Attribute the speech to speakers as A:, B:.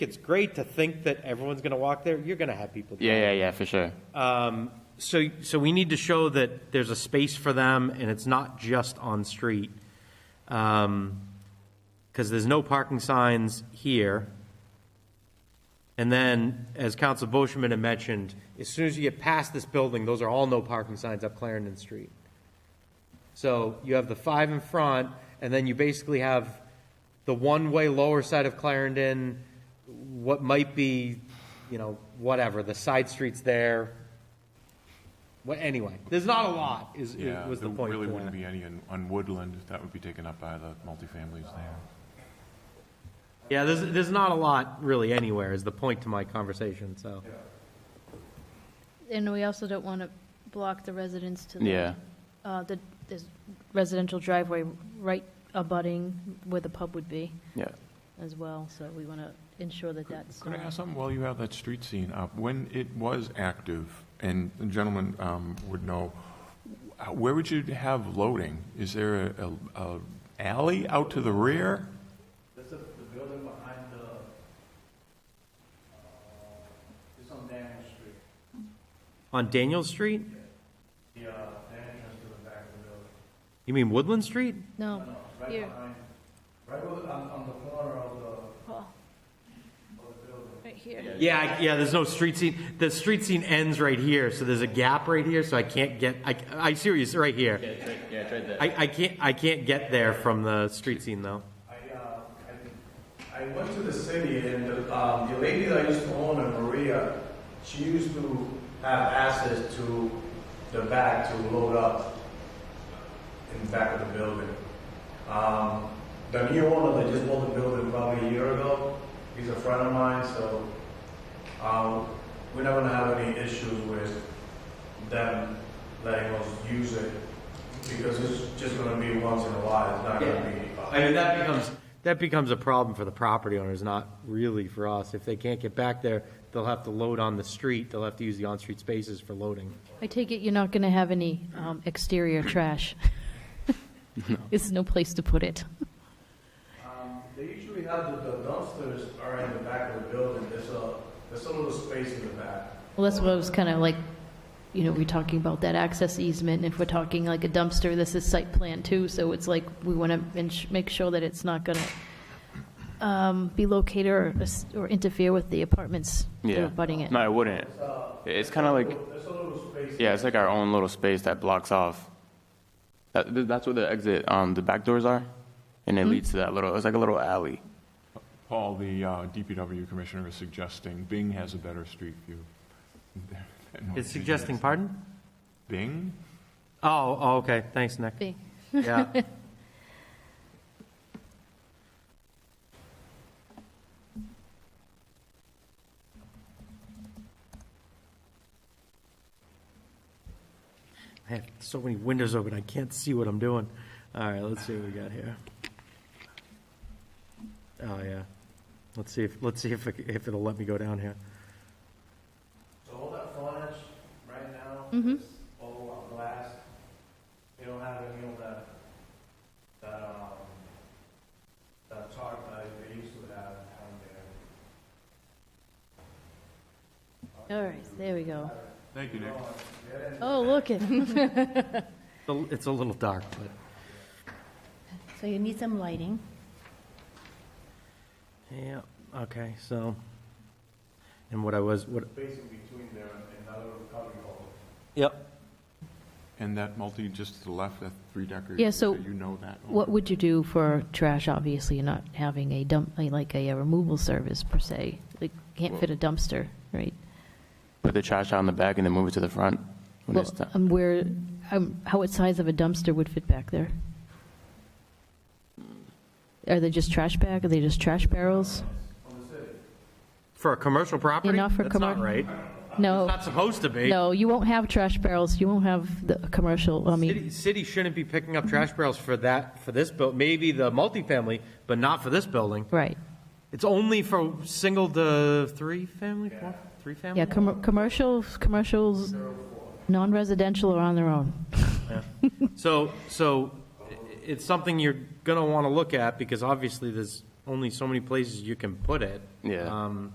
A: it's great to think that everyone's going to walk there. You're going to have people.
B: Yeah, yeah, yeah, for sure.
A: So, so we need to show that there's a space for them and it's not just on street. Because there's no parking signs here. And then, as Council Boschman had mentioned, as soon as you get past this building, those are all no parking signs up Clarendon Street. So you have the five in front, and then you basically have the one-way lower side of Clarendon, what might be, you know, whatever, the side streets there. Well, anyway, there's not a lot, is,
C: Yeah,
A: was the
C: there
A: point.
C: really
A: to
C: wouldn't
A: that.
C: be any on- on Woodland, that would be taken up by the multifamilies there.
A: Yeah, there's, there's not a lot really anywhere, is the point to my conversation, so.
D: And we also don't want to block the residents to. the-
B: Yeah.
D: Uh, the, this residential driveway right abutting where the pub would be
B: Yeah.
D: as well, so we want to ensure that that's.
C: Could I
D: not-
C: ask something while you have that street scene up? When it was active, and the gentleman um, would know, uh, where would you have loading? Is there a- a a alley out to the rear?
E: This is the building behind the, uh, it's on Daniel Street.
A: On Daniel Street?
E: The, uh, the entrance to the back of the building.
A: You mean Woodland Street?
D: No,
E: No, right
D: here,
E: behind, right over, on, on the corner of the,
D: Paul,
E: of the building.
D: right here.
A: Yeah, I- yeah, there's no street scene. The street scene ends right here, so there's a gap right here, so I can't get, I, I see what you're, right here.
B: Yeah, it's right there.
A: I, I can't, I can't get there from the street scene though.
E: I, uh, I, I went to the city and, the, um, the lady that I used to own, her, Maria, she used to have access to the back to load up in the back of the building. Um, the new owner that just bought the building probably a year ago, he's a friend of mine, so, um, we're not gonna have any issues with them letting us use it because it's just gonna be once in a while, it's not gonna be. uh,
A: I mean, that becomes, that becomes a problem for the property owners, not really for us. If they can't get back there, they'll have to load on the street, they'll have to use the on-street spaces for loading.
D: I take it you're not going to have any um, exterior trash? There's no place to put it.
E: Um, They usually have the the dumpsters are in the back of the building, there's a, there's a little space in the back.
D: Well, that's what I was kind of like, you know, we're talking about that access easement, and if we're talking like a dumpster, this is site plan too, so it's like, we want to make sure that it's not going to be located or as- or interfere with the apartments that
B: Yeah.
D: are abutting it.
B: No, I wouldn't. It's kind of like,
E: There's a little space.
B: yeah, it's like our own little space that blocks off. That, th- that's where the exit, um, the back doors are, and
D: Mm-hmm.
B: it leads to that little. It's like a little alley.
C: Paul, the uh, DPW commissioner is suggesting Bing has a better street view. than what
A: It's
C: she
A: suggesting,
C: has.
A: pardon?
C: Bing?
A: Oh, oh, okay, thanks, Nick.
D: Be-
A: Yeah. I have so many windows open, I can't see what I'm doing. All right, let's see what we got here. Oh, yeah. Let's see if, let's see if, it- if it'll let me go down here.
E: So all that frontage right now is all on glass. They don't have any of that, that, um, that tarp that they used to have down there.
D: All right, there we go.
C: Thank you, Nick.
D: Oh, look at,
A: It's a- It's a little dark, but.
F: So you need some lighting.
A: Yeah, okay, so, and what I was, what,
E: Space in between there and that little cubby hole.
A: yep,
C: And that multi, just to the left, that three-decker?
D: Yeah, so
C: You know that? owner?
D: what would you do for trash? Obviously, you're not having a dump, like a removal service per se. Like, can't fit a dumpster, right?
B: Put the trash out in the back and then move it to the front. When
D: Well,
B: it's done.
D: um, where, um, how what size of a dumpster would fit back there? Are they just trash bag? Are they just trash barrels?
A: for a commercial property?
D: not for
A: That's
D: commer-
A: not right. It's
D: No,
A: not supposed to be.
D: no, you won't have trash barrels. You won't have the commercial, I mean,
A: City, city shouldn't be picking up trash barrels for that, for this buil, maybe the multifamily, but not for this building.
D: right.
A: It's only for single to three family, four, three family?
D: Yeah, com- commercials, commercials, non-residential are on their own.
A: So, so i- it's something you're going to want to look at because obviously there's only so many places you can put it.
B: Yeah.
A: Um,